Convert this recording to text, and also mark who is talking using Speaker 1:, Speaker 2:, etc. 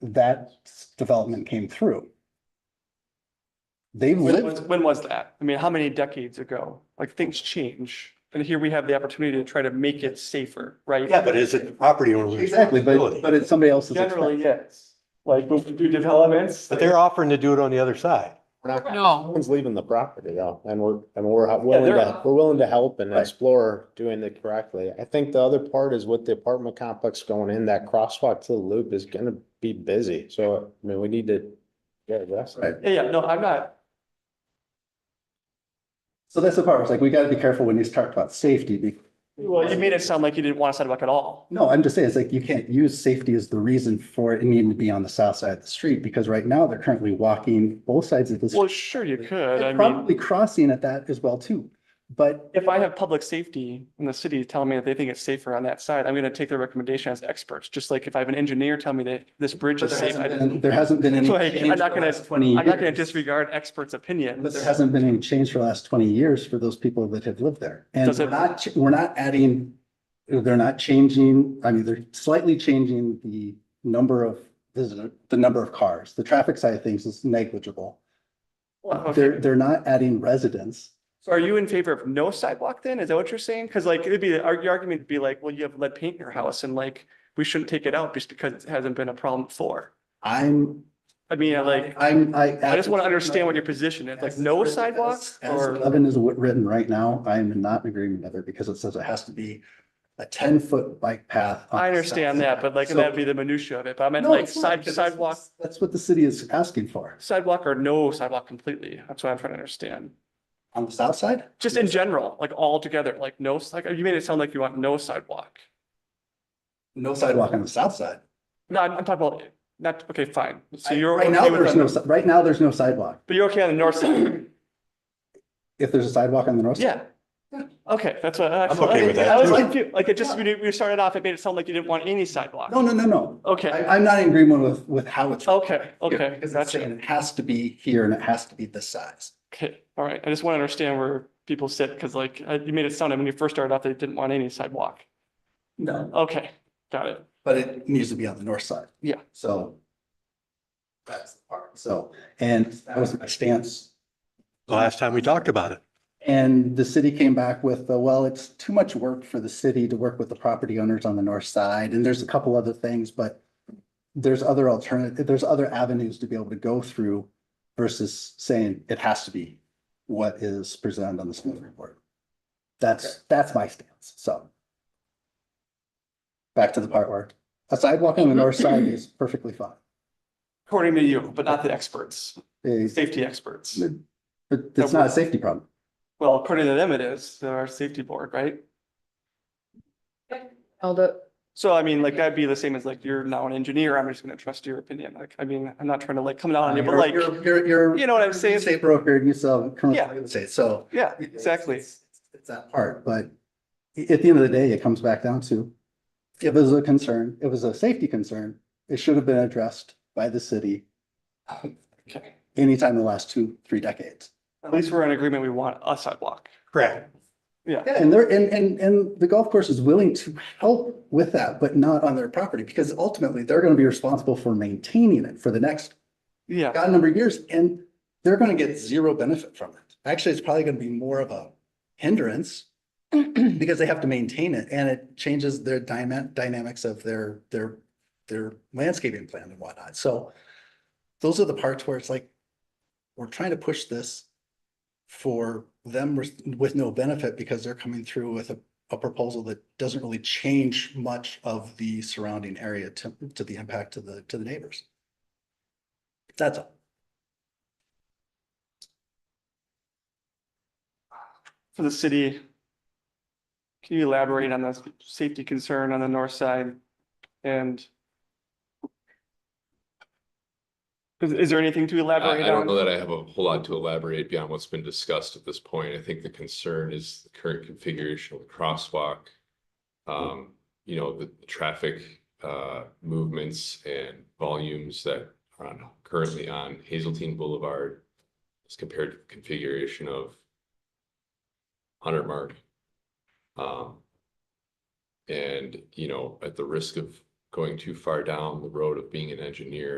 Speaker 1: that s- development came through. They've
Speaker 2: When was,
Speaker 1: lived,
Speaker 2: when was that? I mean, how many decades ago? Like, things change. And here we have the opportunity to try to make it safer, right?
Speaker 3: Yeah, but is it the property owner's
Speaker 1: exactly, but,
Speaker 3: responsibility?
Speaker 1: but it's somebody else's.
Speaker 2: Generally,
Speaker 1: expense.
Speaker 2: yes. Like, when we do developments.
Speaker 3: But they're offering to do it on the other side.
Speaker 4: No.
Speaker 5: One's leaving the property though, and we're, and we're
Speaker 2: Yeah,
Speaker 5: willing
Speaker 2: they're-
Speaker 5: to, we're willing to help and
Speaker 1: Right.
Speaker 5: explore doing it correctly. I think the other part is with the apartment complex going in, that crosswalk to the loop is gonna be busy, so, I mean, we need to. Yeah, address
Speaker 1: Right.
Speaker 5: that.
Speaker 2: Yeah, yeah, no, I'm not.
Speaker 1: So that's the part, it's like, we gotta be careful when you start about safety, be-
Speaker 2: Well, you made it sound like you didn't want a sidewalk at all.
Speaker 1: No, I'm just saying, it's like you can't use safety as the reason for it needing to be on the south side of the street, because right now they're currently walking both sides of the
Speaker 2: Well,
Speaker 1: street.
Speaker 2: sure you could. I
Speaker 1: And
Speaker 2: mean,
Speaker 1: Probably crossing at that as well too, but
Speaker 2: if I have public safety in the city telling me that they think it's safer on that side, I'm going to take their recommendation as experts. Just like if I have an engineer tell me that this bridge
Speaker 1: but
Speaker 2: is
Speaker 1: there
Speaker 2: safe, I-
Speaker 1: hasn't
Speaker 2: I'm
Speaker 1: been- there hasn't been any.
Speaker 2: Like, I'm
Speaker 1: change for
Speaker 2: not
Speaker 1: the
Speaker 2: gonna-
Speaker 1: last Twenty.
Speaker 2: not going to
Speaker 1: years.
Speaker 2: disregard experts' opinion.
Speaker 1: But there hasn't been any change for the last twenty years for those people that have lived there. And
Speaker 2: Does it-
Speaker 1: we're not, ch- we're not adding, they're not changing, I mean, they're slightly changing the number of, visitor- the number of cars. The traffic side of things is negligible.
Speaker 2: Okay.
Speaker 1: They're, they're not adding residents.
Speaker 2: So are you in favor of no sidewalk then? Is that what you're saying? Because like, it'd be, our- your argument would be like, well, you have lead paint in your house and like, we shouldn't take it out just because it hasn't been a problem before.
Speaker 1: I'm,
Speaker 2: I mean, I like,
Speaker 1: I'm, I.
Speaker 2: I just want to understand what your position is, like no sidewalks
Speaker 1: As
Speaker 2: or,
Speaker 1: eleven is writ- written right now, I am not in agreement with it because it says it has to be a ten-foot bike path. on
Speaker 2: I
Speaker 1: the
Speaker 2: understand
Speaker 1: south
Speaker 2: that,
Speaker 1: side.
Speaker 2: but like,
Speaker 1: So-
Speaker 2: that'd be the minutia of it. But I meant
Speaker 1: No,
Speaker 2: like
Speaker 1: it's not,
Speaker 2: side,
Speaker 1: because
Speaker 2: sidewalk,
Speaker 1: that's- That's what the city is asking for.
Speaker 2: sidewalk or no sidewalk completely. That's what I'm trying to understand.
Speaker 1: On the south side?
Speaker 2: Just in general, like all together, like no, like, you made it sound like you want no sidewalk.
Speaker 1: No sidewalk on the south side.
Speaker 2: No, I'm I'm talking about, not, okay, fine. So
Speaker 1: I-
Speaker 2: you're.
Speaker 1: Right now,
Speaker 2: okay with
Speaker 1: there's
Speaker 2: the-
Speaker 1: no, si- right now, there's no sidewalk.
Speaker 2: But you're okay on the north side.
Speaker 1: If there's a sidewalk on the north. side,
Speaker 2: Yeah. Okay, that's what. I'm
Speaker 3: okay with that,
Speaker 2: I was
Speaker 1: too.
Speaker 2: confused, like, it just, we, we started off, it made it sound like you didn't want any sidewalk.
Speaker 1: No, no, no, no. I,
Speaker 2: Okay,
Speaker 1: I'm not in agreement with, with how it's.
Speaker 2: okay,
Speaker 1: here,
Speaker 2: Oh, okay,
Speaker 1: Because it's
Speaker 2: gotcha.
Speaker 1: saying it has to be here and it has to be this size.
Speaker 2: Okay, all right, I just want to understand where people sit, because like, uh, you made it sound, like when you first started off, they didn't want any sidewalk.
Speaker 1: No.
Speaker 2: Okay, got it.
Speaker 1: But it needs to be on the north side.
Speaker 2: Yeah.
Speaker 1: So. That's the part. So, and that was my stance.
Speaker 3: The last time we talked about it.
Speaker 1: And the city came back with, uh, well, it's too much work for the city to work with the property owners on the north side, and there's a couple other things, but there's other alternative, there's other avenues to be able to go through versus saying it has to be what is presented on the Smith report. That's, that's my stance, so. Back to the part where a sidewalk on the north side is perfectly fine.
Speaker 2: According to you, but not the experts,
Speaker 1: It's-
Speaker 2: safety experts.
Speaker 1: But it's not a safety problem.
Speaker 2: Well, according to them, it is, they're our safety board, right?
Speaker 4: Held up.
Speaker 2: So I mean, like, that'd be the same as like, you're now an engineer, I'm just going to trust your opinion. Like, I mean, I'm not trying to like come down on you, but
Speaker 1: You're-
Speaker 2: like,
Speaker 1: You're, you're, you're.
Speaker 2: you know what I'm saying?
Speaker 1: State broker and you sell commercial
Speaker 2: Yeah.
Speaker 1: real estate, so.
Speaker 2: yeah,
Speaker 1: it's-
Speaker 2: exactly.
Speaker 1: It's it's that part, but i- at the end of the day, it comes back down to, it was a concern, it was a safety concern, it should have been addressed by the city
Speaker 2: Okay.
Speaker 1: anytime in the last two, three decades.
Speaker 2: At least we're in agreement, we want a sidewalk.
Speaker 3: Correct.
Speaker 1: Yeah, and they're, and, and, and the golf course is willing to help with that, but not on their property, because ultimately, they're gonna be responsible for maintaining it for the next
Speaker 2: Yeah,
Speaker 1: God number of years, and they're gonna get zero benefit from it. Actually, it's probably gonna be more of a hindrance because they have to maintain it and it changes their dyna- dynamics of their, their, their landscaping plan and whatnot. So those are the parts where it's like, we're trying to push this for them with, with no benefit because they're coming through with a, a proposal that doesn't really change much of the surrounding area to, to the impact to the, to the neighbors. That's all.
Speaker 2: for the city. Can you elaborate on the safety concern on the north side? And is, is there anything to elaborate
Speaker 6: I, I don't know
Speaker 2: on?
Speaker 6: that I have a whole lot to elaborate beyond what's been discussed at this point. I think the concern is the current configuration of the crosswalk. Um, you know, the the traffic, uh, movements and volumes that are on- currently on Hazeltine Boulevard as compared to the configuration of Hunter Mark. Um, and, you know, at the risk of going too far down the road of being an engineer